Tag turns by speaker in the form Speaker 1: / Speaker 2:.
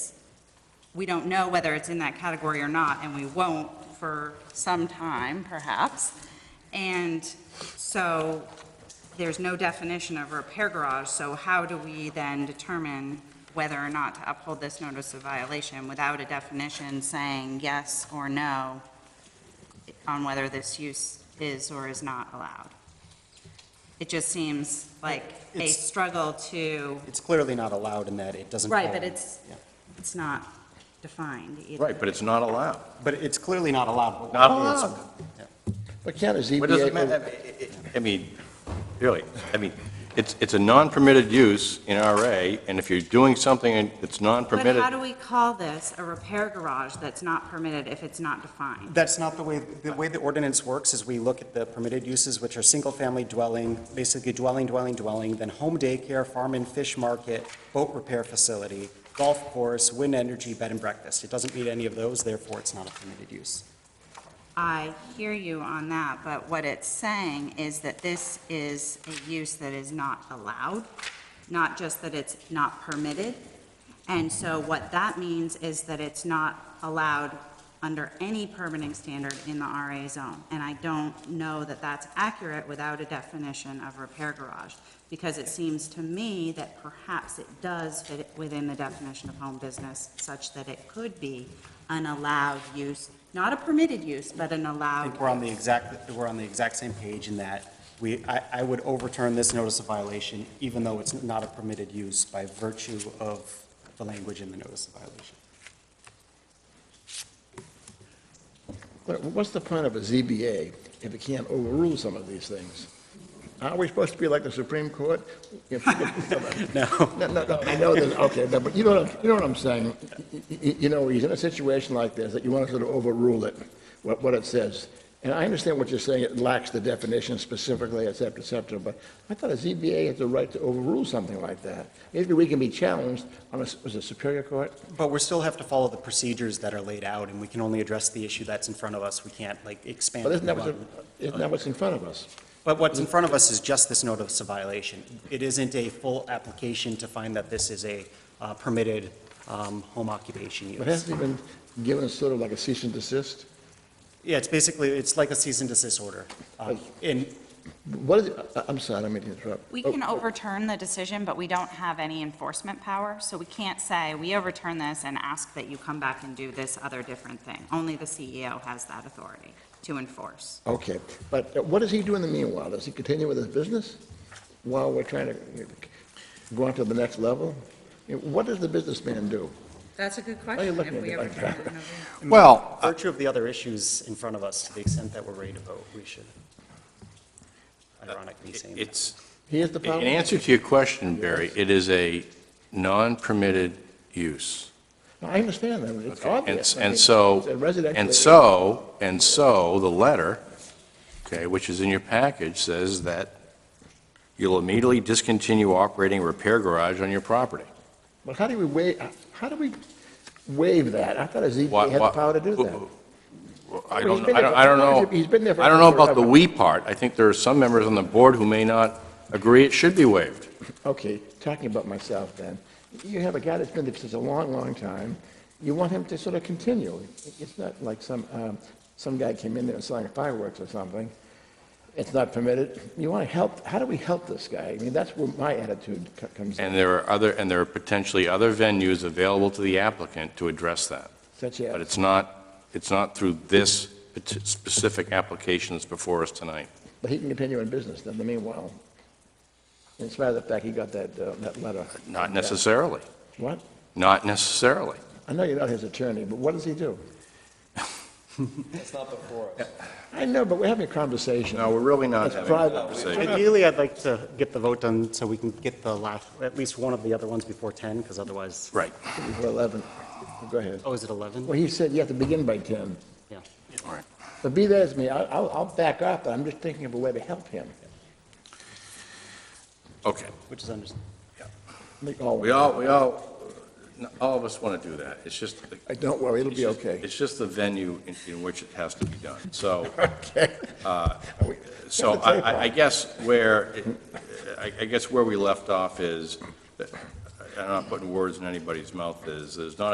Speaker 1: we don't know whether it's in that category or not, and we won't for some time, perhaps. And so there's no definition of repair garage, so how do we then determine whether or not to uphold this notice of violation without a definition saying yes or no on whether this use is or is not allowed? It just seems like a
Speaker 2: It's-
Speaker 1: struggle to,
Speaker 2: It's clearly not allowed in that it doesn't.
Speaker 1: right,
Speaker 2: fall
Speaker 1: but
Speaker 2: in-
Speaker 1: it's,
Speaker 2: yeah.
Speaker 1: it's not defined either.
Speaker 3: Right, but it's not allowed.
Speaker 2: But it's clearly not allowed.
Speaker 3: Not
Speaker 2: It's-
Speaker 1: Oh.
Speaker 3: allowed.
Speaker 4: But can't a
Speaker 3: What does
Speaker 4: ZBA,
Speaker 3: it
Speaker 4: go-
Speaker 3: matter? I mean, really, I mean, it's, it's a non-permitted use in RA, and if you're doing something that's
Speaker 1: But how
Speaker 3: non-permitted,
Speaker 1: do we call this a repair garage that's not permitted if it's not defined?
Speaker 2: That's not the way, the way the ordinance works is we look at the permitted uses, which are single-family dwelling, basically dwelling, dwelling, dwelling, then home daycare, farm and fish market, boat repair facility, golf course, wind energy, bed and breakfast. It doesn't meet any of those, therefore it's not a permitted use.
Speaker 1: I hear you on that, but what it's saying is that this is a use that is not allowed, not just that it's not permitted. And so what that means is that it's not allowed under any permitting standard in the RA zone. And I don't know that that's accurate without a definition of repair garage, because it seems to me that perhaps it does fit within the definition of home business such that it could be an allowed use, not a permitted use, but an
Speaker 2: I
Speaker 1: allowed.
Speaker 2: think we're on the exact, we're on the exact same page in that we, I, I would overturn this notice of violation, even though it's not a permitted use by virtue of the language in the notice of violation.
Speaker 4: what's the point of a ZBA if it can't overrule some of these things? Aren't we supposed to be like the Supreme Court? If- if- No, no, no, I know that, okay, no, but you know, what I'm- you know what I'm saying? Y- y- y- You know, he's in a situation like this, that you want to sort of overrule it, what, what it says. And I understand what you're saying, it lacks the definition specifically, et cetera, et cetera, but I thought a ZBA has the right to overrule something like that. Maybe we can be challenged on a, s- was it Superior Court?
Speaker 2: But we still have to follow the procedures that are laid out, and we can only address the issue that's in front of us. We can't, like, expand.
Speaker 4: But isn't that, what's-
Speaker 2: upon-
Speaker 4: isn't that what's in front of us?
Speaker 2: But what's in front of us is just this notice of violation. It isn't a full application to find that this is a uh, permitted um, home occupation
Speaker 4: But
Speaker 2: use.
Speaker 4: hasn't he been given sort of like a cease and desist?
Speaker 2: Yeah, it's basically, it's like a cease and desist order. Um, And
Speaker 4: What is, it- I- I'm sorry, I didn't mean to interrupt.
Speaker 1: We
Speaker 4: Oh,
Speaker 1: can overturn the decision, but we don't have any enforcement power, so we can't say, we overturn this and ask that you come back and do this other different thing. Only the CEO has that authority to enforce.
Speaker 4: Oh, Okay, but uh, what does he do in the meanwhile? Does he continue with his business while we're trying to go on to the next level? You know, What does the businessman do?
Speaker 5: That's a good
Speaker 4: Why are you
Speaker 5: question,
Speaker 4: looking
Speaker 5: if
Speaker 4: at
Speaker 5: we
Speaker 4: me
Speaker 5: ever
Speaker 4: like
Speaker 5: try
Speaker 4: that?
Speaker 5: to. know.
Speaker 4: uh,
Speaker 6: Well,
Speaker 2: in virtue of the other issues in front of us, to the extent that we're ready to vote, we should ironically saying that.
Speaker 3: it's,
Speaker 4: He is the
Speaker 3: in
Speaker 4: power?
Speaker 3: answer to your question, Barry, it is a non-permitted use.
Speaker 4: No, I understand that, it's
Speaker 3: And
Speaker 4: obvious.
Speaker 3: s-
Speaker 4: I
Speaker 3: And
Speaker 4: mean,
Speaker 3: so,
Speaker 4: it's a residential
Speaker 3: and
Speaker 4: area.
Speaker 3: so, and so, the letter, okay, which is in your package, says that you'll immediately discontinue operating a repair garage on your property.
Speaker 4: But how do we waive, how do we waive that? I thought a
Speaker 3: Why-
Speaker 4: ZBA had the
Speaker 3: why-
Speaker 4: power to do
Speaker 3: who-
Speaker 4: that.
Speaker 3: who- well, I
Speaker 4: Well,
Speaker 3: don't,
Speaker 4: he's
Speaker 3: know-
Speaker 4: been
Speaker 3: I
Speaker 4: there
Speaker 3: don't-
Speaker 4: for-
Speaker 3: I don't know.
Speaker 4: he's been there for
Speaker 3: I don't know about the
Speaker 4: forever.
Speaker 3: "we" part. I think there are some members on the board who may not agree it should be waived.
Speaker 4: Okay, talking about myself then, you have a guy that's been there since a long, long time, you want him to sort of continue. It's not like some, um, some guy came in there and selling fireworks or something. It's not permitted. You want to help, how do we help this guy? I mean, that's where my attitude co- comes in,
Speaker 3: And there are other, and there are potentially other venues available to the applicant to address that.
Speaker 4: such
Speaker 3: But
Speaker 4: as,
Speaker 3: it's not, it's not through this pat- specific application that's before us tonight.
Speaker 4: but he can continue in business in the meanwhile. In spite of the fact he got that, uh, that letter.
Speaker 3: Not
Speaker 4: Yeah.
Speaker 3: necessarily,
Speaker 4: What?
Speaker 3: not necessarily.
Speaker 4: I know you're not his attorney, but what does he do?
Speaker 7: It's not before us.
Speaker 4: I know, but we're having a conversation.
Speaker 3: No, we're really not
Speaker 4: It's
Speaker 3: having a
Speaker 4: private.
Speaker 3: conversation.
Speaker 2: Ideally, I'd like to get the vote done so we can get the last, at least one of the other ones before 10, because otherwise,
Speaker 3: Right,
Speaker 4: We're 11. Go ahead.
Speaker 2: oh, is it 11?
Speaker 4: Well, he said you have to begin by 10.
Speaker 2: Yeah.
Speaker 3: all right.
Speaker 4: But be that as may, I- I'll, I'll back up, but I'm just thinking of a way to help him.
Speaker 3: Okay.
Speaker 2: Which is understandable.
Speaker 4: Make all-
Speaker 3: We all, we all, all of us want to do that. It's just.
Speaker 4: Uh, Don't worry, it'll be okay.
Speaker 3: It's just the venue in, in which it has to be done. So, uh,
Speaker 4: Okay.
Speaker 3: so
Speaker 4: That's a
Speaker 3: I,
Speaker 4: safe
Speaker 3: I- I guess where, it- I, I guess where we left off is, that- I'm not putting words in anybody's mouth, is there's not